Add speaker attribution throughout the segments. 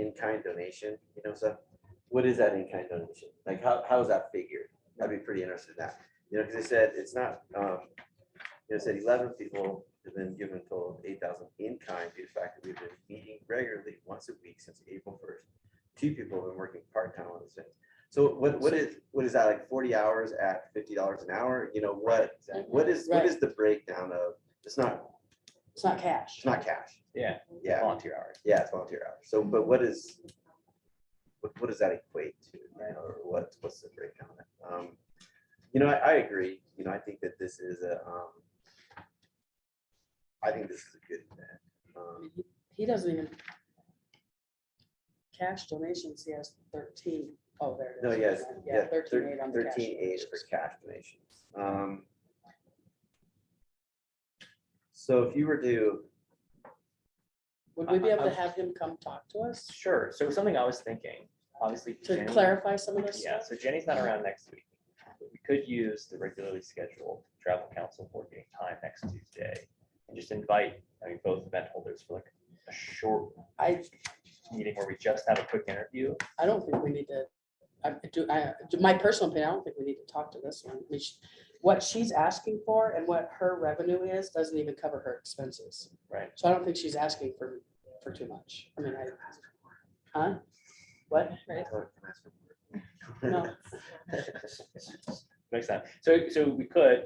Speaker 1: in-kind donation, you know, so what is that in-kind donation? Like, how, how is that figured? I'd be pretty interested in that. You know, because they said it's not, um, you know, said eleven people have been given a total of eight thousand in-kind due to the fact that we've been meeting regularly once a week since April first. Two people have been working part-time on this thing. So what, what is, what is that, like forty hours at fifty dollars an hour? You know, what, what is, what
Speaker 2: Right.
Speaker 1: is the breakdown of, it's not,
Speaker 2: It's not cash.
Speaker 1: it's not cash.
Speaker 3: Yeah.
Speaker 1: Yeah.
Speaker 3: Volunteer hours.
Speaker 1: Yeah, it's volunteer hours. So, but what is, what, what does that equate to, you know, or what, what's the breakdown? of it? Um, You know, I, I agree, you know, I think that this is a, um, I think this is a good event. Um,
Speaker 2: He doesn't even. Cash donations, he has thirteen. Oh, there it is.
Speaker 1: No, yes, yeah,
Speaker 2: Yeah, thirteen eight on the cash.
Speaker 1: thirteen eight for cash donations. Um, So if you were to,
Speaker 2: Would we be able
Speaker 3: I-
Speaker 2: to
Speaker 3: I-
Speaker 2: have him come talk to us
Speaker 3: Sure. So something I was thinking, obviously.
Speaker 2: to
Speaker 3: Jenny-
Speaker 2: clarify some of this
Speaker 3: Yeah,
Speaker 2: stuff?
Speaker 3: so Jenny's not around next week. but We could use the regularly scheduled travel council board meeting time next Tuesday and just invite, I mean, both event holders for like a short
Speaker 2: I,
Speaker 3: meeting where we just have a quick interview.
Speaker 2: I don't think we need to, I do, I, do- my personal opinion, I don't think we need to talk to this one. I mean, she- What she's asking for and what her revenue is doesn't even cover her expenses.
Speaker 3: Right.
Speaker 2: So I don't think she's asking for, for too much. I mean, I. Huh? What?
Speaker 1: I
Speaker 4: Right.
Speaker 1: don't- can I ask for more?
Speaker 2: No,
Speaker 3: Next time. So, so we could,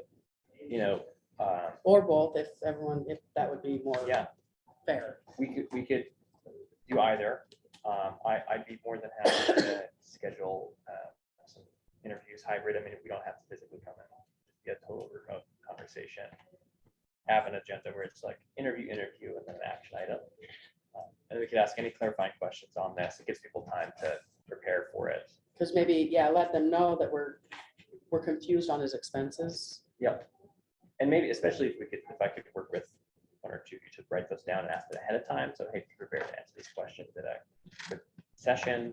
Speaker 3: you know, um,
Speaker 2: or both, if everyone, if that would be more
Speaker 3: yeah,
Speaker 2: fair.
Speaker 3: we could, we could do either. Um, I, I'd be more than happy to schedule, uh, some interviews hybrid. I mean, if we don't have to physically come in, get a total remote conversation. Have an agenda where it's like interview, interview, and then an action item. Um, And we could ask any clarifying questions on this. It gives people time to prepare for it.
Speaker 2: Because maybe, yeah, let them know that we're, we're confused on his expenses.
Speaker 3: And maybe especially if we could, if I could work with one or two, you should write those down and ask it ahead of time. So hey, be prepared to answer these questions at a quick session.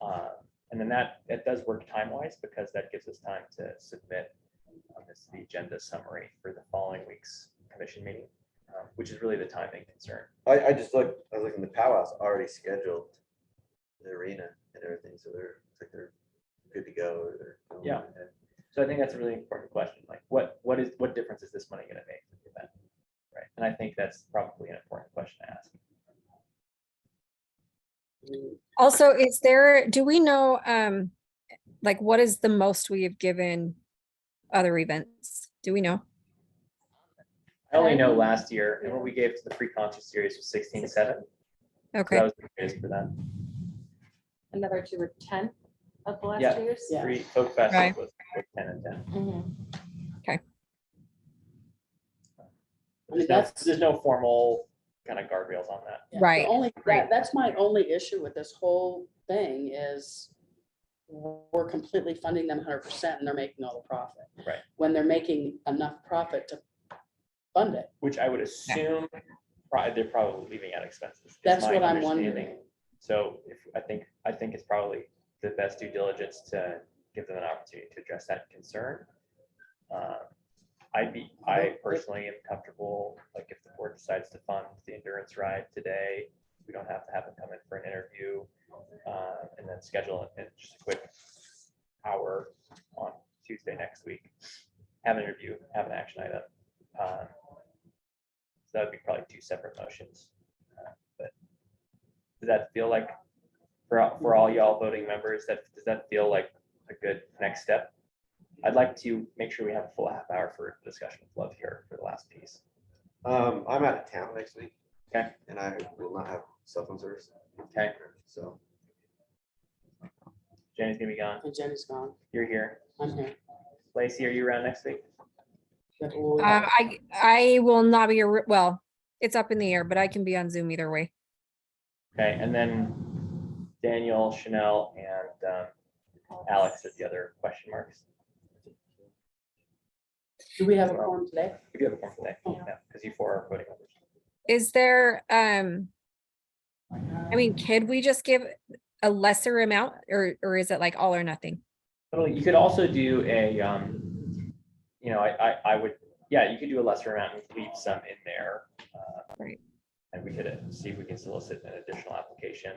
Speaker 3: Uh, And then that, that does work time wise because that gives us time to submit um, this, the agenda summary for the following week's commission meeting, um, which is really the timing concern.
Speaker 1: I, I just looked, I was looking, the powwow's already scheduled, the arena and everything, so they're, it's like they're good to go. or they're going
Speaker 3: Yeah.
Speaker 1: ahead.
Speaker 3: So I think that's a really important question, like what, what is, what difference is this money gonna make for the event? Right, and I think that's probably an important question to ask.
Speaker 4: Also, is there, do we know, um, like what is the most we have given other events? Do we know?
Speaker 3: I only know last year, and what we gave to the free conscious series was sixteen seven. So That
Speaker 4: Okay,
Speaker 3: was the greatest for them.
Speaker 5: another two or ten of the last
Speaker 3: Yeah.
Speaker 5: two years.
Speaker 2: Yeah.
Speaker 3: Three folk fest
Speaker 4: Right.
Speaker 3: was was ten and ten.
Speaker 5: Mhm.
Speaker 2: I mean,
Speaker 3: There's no,
Speaker 2: that's-
Speaker 3: there's no formal kind of guardrails on that.
Speaker 2: Yeah, the
Speaker 4: Right.
Speaker 2: Only,
Speaker 3: Right.
Speaker 2: that, that's my only issue with this whole thing is we're completely funding them hundred percent and they're making all the profit.
Speaker 3: Right.
Speaker 2: When they're making enough profit to fund it.
Speaker 3: Which I would assume, probably, they're probably leaving out expenses. is
Speaker 2: That's
Speaker 3: my
Speaker 2: what I'm
Speaker 3: understanding.
Speaker 2: wondering.
Speaker 3: So if, I think, I think it's probably the best due diligence to give them an opportunity to address that concern. Uh, I'd be, I personally am comfortable, like if the board decides to fund the endurance ride today, we don't have to have them come in for an interview. uh, And then schedule it in just a quick hour on Tuesday next week. Have an interview, have an action item. um, So that'd be probably two separate motions. uh, But does that feel like, for, all- for all y'all voting members, that, does that feel like a good next step? I'd like to make sure we have a full half hour for discussion with Love here for the last piece.
Speaker 1: Um, I'm out of town next week.
Speaker 3: Okay.
Speaker 1: And I will not have cell phone service.
Speaker 3: Okay.
Speaker 1: So,
Speaker 3: Jenny's gonna be gone.
Speaker 2: And Jenny's gone.
Speaker 3: You're here.
Speaker 2: I'm here.
Speaker 3: Lacey, are you around next week?
Speaker 2: But we'll-
Speaker 4: uh, I, I will not be, ar- well, it's up in the air, but I can be on Zoom either way.
Speaker 3: Okay, and then Daniel, Chanel, and um, Alex is the other question marks.
Speaker 2: Do we have a form today?
Speaker 3: We do have a form today,
Speaker 2: Yeah.
Speaker 3: because you four are voting members.
Speaker 4: Is there, um, I mean, could we just give a lesser amount or, or is it like all or nothing?
Speaker 3: Well, you could also do a, um, you know, I, I, I would, yeah, you could do a lesser amount and leave some in there. uh,
Speaker 4: Right.
Speaker 3: And we could uh, see if we can solicit an additional application